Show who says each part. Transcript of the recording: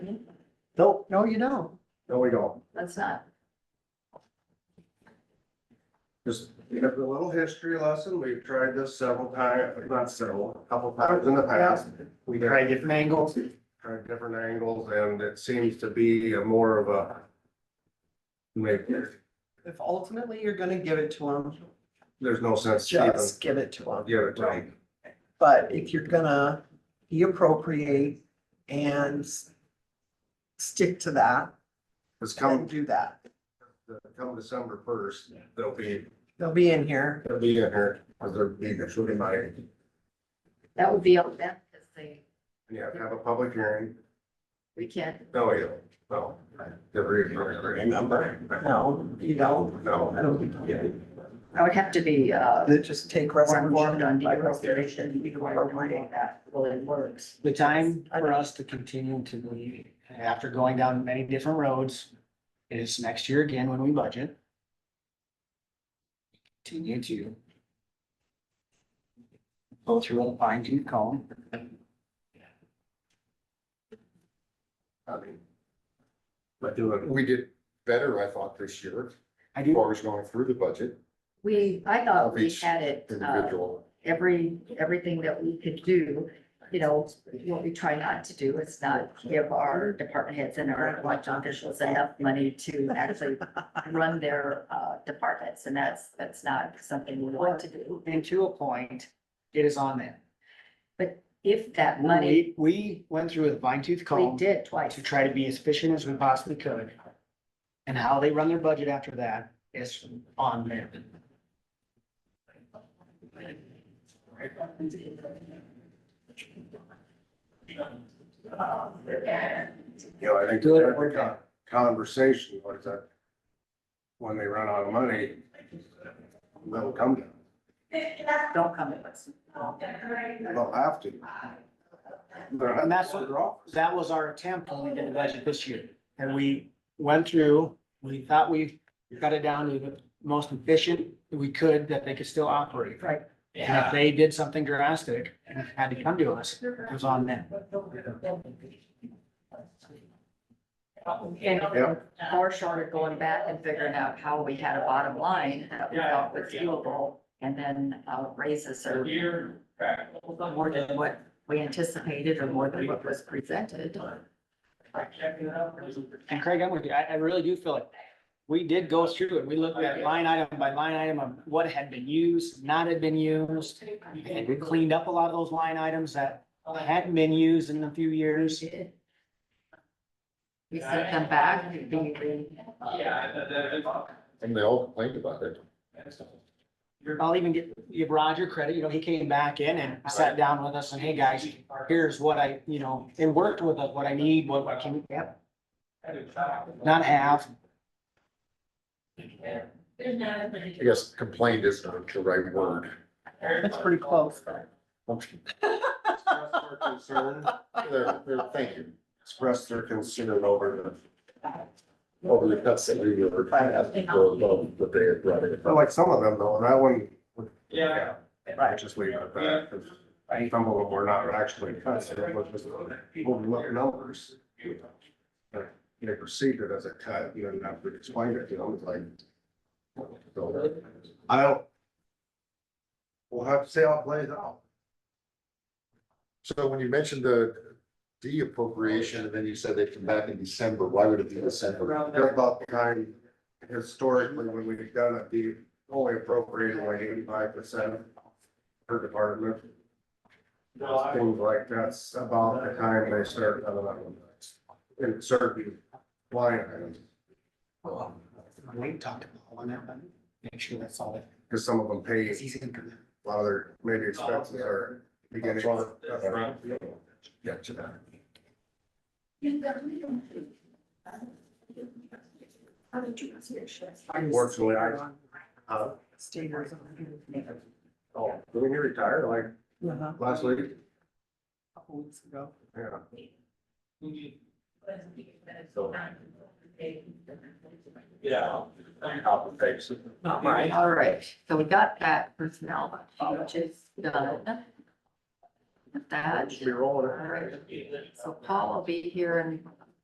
Speaker 1: Nope,
Speaker 2: No, you don't.
Speaker 1: no, we don't.
Speaker 2: That's not.
Speaker 1: Just, you know, a little history lesson. We've tried this several times, not several, a couple times in the past. We
Speaker 2: Try
Speaker 1: tried,
Speaker 2: different angles.
Speaker 1: tried different angles and it seems to be a more of a maybe,
Speaker 2: If ultimately you're gonna give it to them,
Speaker 1: there's no sense to even
Speaker 2: just give it to them.
Speaker 1: give it to them.
Speaker 2: But if you're gonna be appropriate and s- stick to that,
Speaker 1: It's come,
Speaker 2: then do that.
Speaker 1: come December first, they'll be,
Speaker 2: They'll be in here.
Speaker 1: they'll be in here, because they're being shooting by. And
Speaker 3: That would be on them, because they,
Speaker 1: you have to have a public hearing.
Speaker 3: we can't,
Speaker 1: No, you don't. No. Every, every number.
Speaker 2: No, you don't.
Speaker 1: No.
Speaker 2: I don't think you do.
Speaker 3: I would have to be, uh,
Speaker 2: They just take
Speaker 3: more informed on
Speaker 2: resolution by
Speaker 3: deregulation.
Speaker 2: resolution.
Speaker 3: You'd want to know how that really works.
Speaker 4: The time for us to continue to be, after going down many different roads, is next year again when we budget. Continue to. Go through a fine tooth comb.
Speaker 1: I mean. But do it.
Speaker 5: We did better, I thought, this year,
Speaker 4: I
Speaker 5: as
Speaker 4: do,
Speaker 5: far as going through the budget,
Speaker 3: We, I thought we
Speaker 5: Each
Speaker 3: had it, uh,
Speaker 5: individual.
Speaker 3: every, everything that we could do. You know, what we try not to do is not give our department heads and our elected officials enough money to actually run their, uh, departments, and that's, that's not something we want to do.
Speaker 4: and to a point, it is on them.
Speaker 3: If that money,
Speaker 4: We, we went through a fine tooth
Speaker 3: we
Speaker 4: comb
Speaker 3: did twice.
Speaker 4: to try to be as efficient as we possibly could. And how they run their budget after that is on them.
Speaker 1: You know, I think,
Speaker 4: Do it.
Speaker 1: I think a conversation, what is that? When they run out of money, they'll come down.
Speaker 3: Don't come with us.
Speaker 1: They'll have to.
Speaker 4: And that's what- that was our attempt when we did the budget this year. And we went through, we thought we got it down to the most efficient we could that they could still operate.
Speaker 3: Right.
Speaker 4: And if they did something drastic and had to come to us, it was on them.
Speaker 3: And
Speaker 1: Yeah.
Speaker 3: far short of going back and figuring out how we had a bottom line that we thought was doable and then uh, raises are more than what we anticipated or more than what was presented.
Speaker 4: And Craig, I'm with you. I, I really do feel like we did go through it. We looked at line item by line item of what had been used, not had been used. And we cleaned up a lot of those line items that hadn't been used in a few years.
Speaker 3: We sent them back. we- we, uh,
Speaker 5: And they all complained about it.
Speaker 4: I'll even get, give Roger credit, you know, he came back in and sat down with us and, hey, guys, here's what I, you know, and worked with us, what I need, what I can, yep, not have.
Speaker 5: I guess complained is not the right word.
Speaker 2: That's pretty close.
Speaker 5: They're- they're- Thank you.
Speaker 1: Express their concern over
Speaker 5: Over the cuts that we were. Or above What they had brought in.
Speaker 1: the, like some of them though, that one.
Speaker 6: Yeah.
Speaker 1: Right, just leave it at that, 'cause some of them were not actually cuts, it was just overlooked numbers. They perceived it as a cut, you didn't have to explain it, you know, it's like. so, I don't. We'll have to see how it plays out.
Speaker 5: So when you mentioned the de appropriation, and then you said they'd come back in December, why would it be December?
Speaker 1: They're about the kind, historically, when we've done it, the only appropriated like eighty-five percent per department. Things like that's about the time they start coming up with that. in certain line items,
Speaker 4: We talked about on that one, make sure that's all it
Speaker 1: because some of them pay
Speaker 4: is. He's gonna come in.
Speaker 1: a lot of their maybe expenses are beginning.
Speaker 5: Yeah, to that.
Speaker 1: Unfortunately, I, uh,
Speaker 2: Staters.
Speaker 1: oh, when you retire, like
Speaker 2: Uh-huh.
Speaker 1: last week,
Speaker 2: Couple weeks ago.
Speaker 1: yeah.
Speaker 6: Yeah.
Speaker 3: All right, all right, so we got that personnel, which is done. Got That,
Speaker 1: Should be rolling.
Speaker 3: all right, so Paul will be here in